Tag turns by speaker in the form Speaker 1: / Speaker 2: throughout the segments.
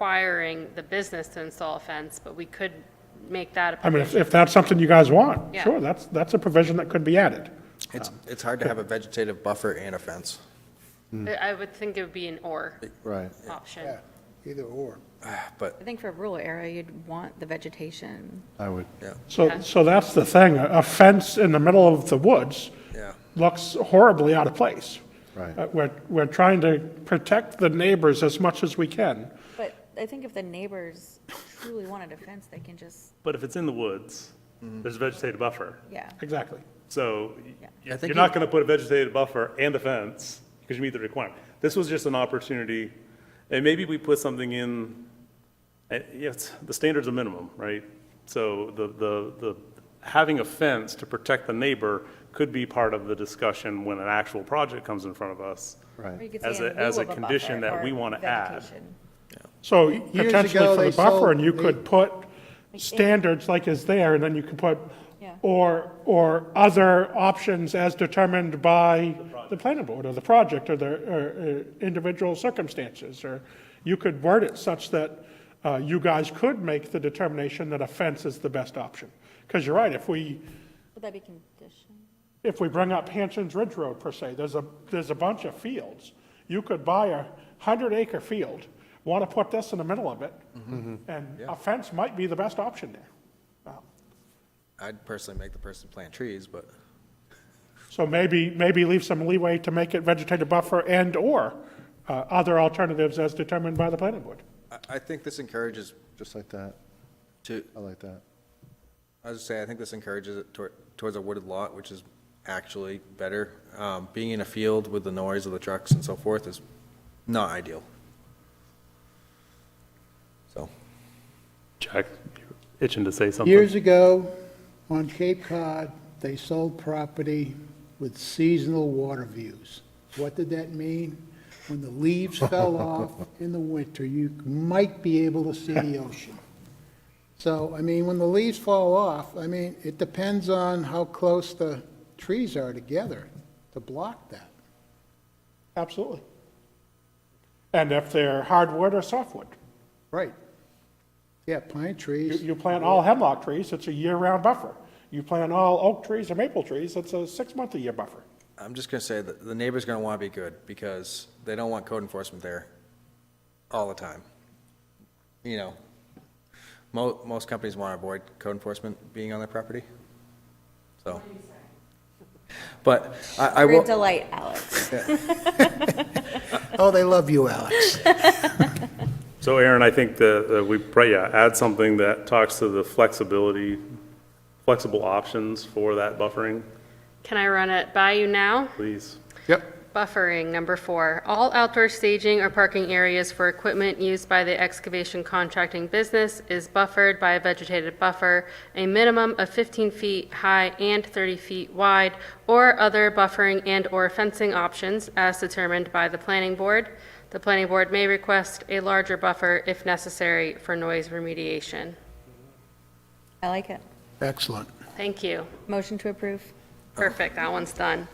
Speaker 1: requiring the business to install a fence, but we could make that a
Speaker 2: I mean, if,
Speaker 1: provision.
Speaker 2: if that's something you guys want,
Speaker 1: Yeah.
Speaker 2: sure, that's, that's a provision that could be added.
Speaker 3: It's, it's hard to have a vegetative buffer and a fence.
Speaker 1: I I would think it would be an or
Speaker 4: Right.
Speaker 1: option.
Speaker 5: Yeah, either or.
Speaker 3: But,
Speaker 6: I think for a rural area, you'd want the vegetation.
Speaker 4: I would,
Speaker 3: yeah,
Speaker 2: So, so that's the thing, a a fence in the middle of the woods
Speaker 3: yeah.
Speaker 2: looks horribly out of place.
Speaker 4: Right.
Speaker 2: Uh, We're, we're trying to protect the neighbors as much as we can.
Speaker 6: But I think if the neighbors truly wanted a fence, they can just,
Speaker 7: But if it's in the woods, there's a vegetated buffer.
Speaker 6: yeah.
Speaker 2: Exactly.
Speaker 7: So y-
Speaker 3: I
Speaker 7: you're
Speaker 3: think
Speaker 7: not
Speaker 3: you-
Speaker 7: going to put a vegetated buffer and a fence because you meet the requirement. This was just an opportunity, and maybe we put something in, eh, yes, the standard's a minimum, right? So the, the, the, having a fence to protect the neighbor could be part of the discussion when an actual project comes in front of us.
Speaker 6: Or you
Speaker 4: right.
Speaker 6: could
Speaker 7: As
Speaker 6: say
Speaker 7: a-
Speaker 6: in
Speaker 7: as
Speaker 6: lieu
Speaker 7: a
Speaker 6: of buffer
Speaker 7: condition that
Speaker 6: or
Speaker 7: we wanna add.
Speaker 6: vegetation.
Speaker 2: So
Speaker 5: ago,
Speaker 2: potentially for
Speaker 5: they
Speaker 2: the buffer,
Speaker 5: sold
Speaker 2: and you
Speaker 5: the- eh.
Speaker 2: could put standards like is there, and then you could put,
Speaker 6: Yeah.
Speaker 2: or, or other options as determined by the planning board, or the project, or the, or uh, individual circumstances, or you could word it such that uh, you guys could make the determination that a fence is the best option. Because you're right, if we,
Speaker 6: Would that be condition?
Speaker 2: if we bring up Hanson's Ridge Road per se, there's a, there's a bunch of fields. You could buy a hundred acre field, want to put this in the middle of it, and a fence might be the best option there. Um,
Speaker 3: I'd personally make the person plant trees, but
Speaker 2: So maybe, maybe leave some leeway to make it vegetative buffer and/or uh, other alternatives as determined by the planning board.
Speaker 3: I, I think this encourages
Speaker 4: Just like that.
Speaker 3: to,
Speaker 4: I like that.
Speaker 3: I was just saying, I think this encourages it toward, towards a wooded lot, which is actually better. Um, being in a field with the noise of the trucks and so forth is not ideal. So,
Speaker 7: Jack, you're itching to say something.
Speaker 5: Years ago, on Cape Cod, they sold property with seasonal water views. What did that mean? When the leaves fell off in the winter, you might be able to see the ocean. So, I mean, when the leaves fall off, I mean, it depends on how close the trees are together to block that.
Speaker 2: Absolutely. And if they're hardwood or softwood,
Speaker 5: Right. Yeah, pine
Speaker 2: you,
Speaker 5: trees.
Speaker 2: you plant all hemlock trees, it's a year-round buffer. You plant all oak trees or maple trees, it's a six-month-a-year buffer.
Speaker 3: I'm just gonna say that the neighbor's gonna wanna be good, because they don't want code enforcement there all the time. You know, mo- most companies wanna avoid code enforcement being on their property, so. But I, I
Speaker 6: You're a
Speaker 3: will,
Speaker 6: delight, Alex.
Speaker 5: Oh, they love you, Alex.
Speaker 7: So Aaron, I think that uh, we, probably, yeah, add something that talks to the flexibility, flexible options for that buffering,
Speaker 1: Can I run it by you now?
Speaker 7: please.
Speaker 4: Yep.
Speaker 1: Buffering, number four. All outdoor staging or parking areas for equipment used by the excavation contracting business is buffered by a vegetated buffer, a minimum of 15 feet high and 30 feet wide, or other buffering and/or fencing options as determined by the planning board. The planning board may request a larger buffer if necessary for noise remediation.
Speaker 6: I like it.
Speaker 5: Excellent.
Speaker 1: Thank you.
Speaker 6: Motion to approve.
Speaker 1: Perfect, that one's done.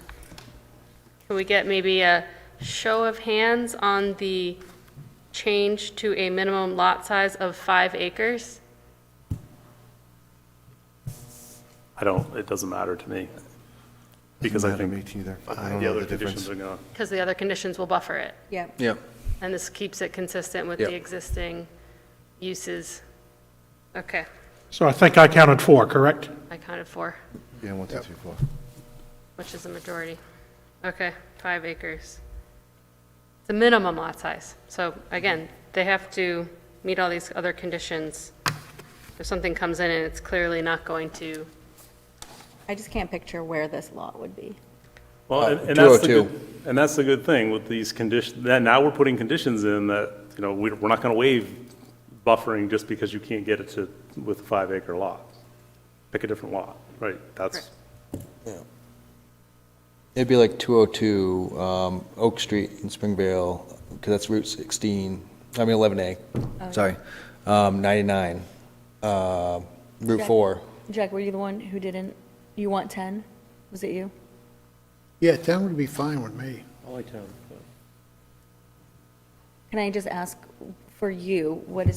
Speaker 1: Can we get maybe a show of hands on the change to a minimum lot size of five acres?
Speaker 7: I don't, it doesn't matter to me. Because I
Speaker 4: Matter to me
Speaker 7: think
Speaker 4: either. I don't
Speaker 7: the
Speaker 4: know the
Speaker 7: other
Speaker 4: difference.
Speaker 7: conditions are gonna,
Speaker 1: Because the other conditions will buffer it,
Speaker 6: Yeah.
Speaker 3: yeah,
Speaker 1: and this keeps it consistent with the
Speaker 3: Yep.
Speaker 1: existing uses. Okay,
Speaker 2: So I think I counted four, correct?
Speaker 1: I counted four,
Speaker 4: Yeah, one, two, three, four.
Speaker 1: which is the majority. Okay, five acres. The minimum lot size. So again, they have to meet all these other conditions. If something comes in and it's clearly not going to
Speaker 6: I just can't picture where this lot would be.
Speaker 7: well,
Speaker 3: Uh,
Speaker 7: and
Speaker 4: oh
Speaker 7: and that's the
Speaker 3: 202.
Speaker 7: good, and that's the good thing with these conditions, that now we're putting conditions in that, you know, we- we're not gonna waive buffering just because you can't get it to, with a five acre lot. Pick a different lot, right? That's,
Speaker 3: It'd be like two oh two, um, Oak Street in Springvale, because that's Route sixteen, I mean eleven A, sorry, um, ninety-nine, uh, Route
Speaker 6: Yeah.
Speaker 3: four.
Speaker 6: Jack, were you the one who didn't, you want 10? Was it you?
Speaker 5: Yeah, 10 would be fine with me.
Speaker 6: Can I just ask for you, what is